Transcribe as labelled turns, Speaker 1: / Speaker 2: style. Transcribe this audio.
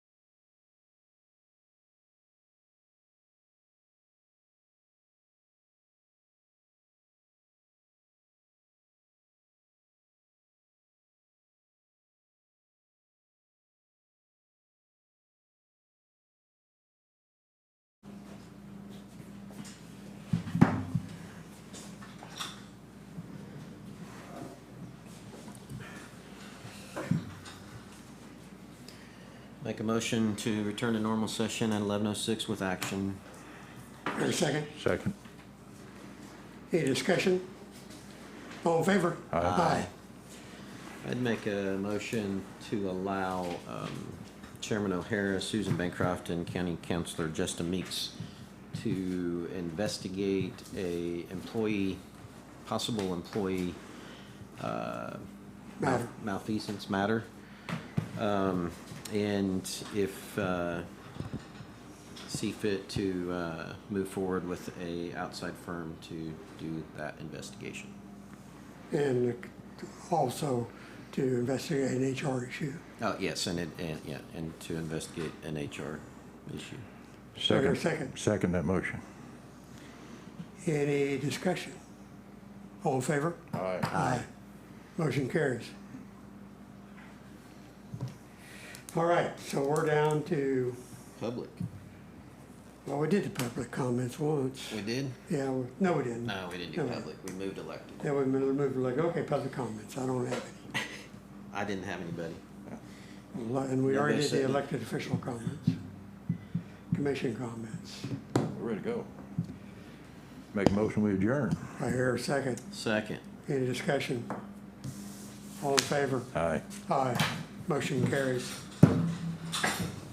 Speaker 1: Make a motion to return to normal session at eleven oh six with action.
Speaker 2: Wait a second.
Speaker 3: Second.
Speaker 2: Any discussion? All in favor? Aye.
Speaker 1: I'd make a motion to allow um, Chairman O'Hara, Susan Bancroft, and County Councilor Justin Meeks to investigate a employee, possible employee uh,
Speaker 2: Matter.
Speaker 1: malfeasance matter. Um, And if uh, see fit to uh, move forward with a outside firm to do that investigation.
Speaker 2: And also to investigate an HR issue.
Speaker 1: Oh, yes, and it, and, yeah, and to investigate an HR issue.
Speaker 2: there a
Speaker 3: Second.
Speaker 2: second?
Speaker 3: Second that motion.
Speaker 2: Any discussion? All in favor?
Speaker 3: Aye.
Speaker 2: Aye. Motion carries. All right, so we're down to,
Speaker 1: Public.
Speaker 2: well, we did the public comments once.
Speaker 1: We did?
Speaker 2: Yeah, we- no, we didn't.
Speaker 1: No, we didn't do
Speaker 2: No.
Speaker 1: public. We moved elected.
Speaker 2: Then we moved, like, okay, public comments, I don't have any.
Speaker 1: I didn't have anybody.
Speaker 2: And we already
Speaker 1: Nobody
Speaker 2: did the
Speaker 1: said-
Speaker 2: elected official comments, commission comments.
Speaker 3: We're ready to go. Make a motion, we adjourn.
Speaker 2: I hear a second.
Speaker 1: Second.
Speaker 2: Any discussion? All in favor?
Speaker 3: Aye.
Speaker 2: Aye. Motion carries.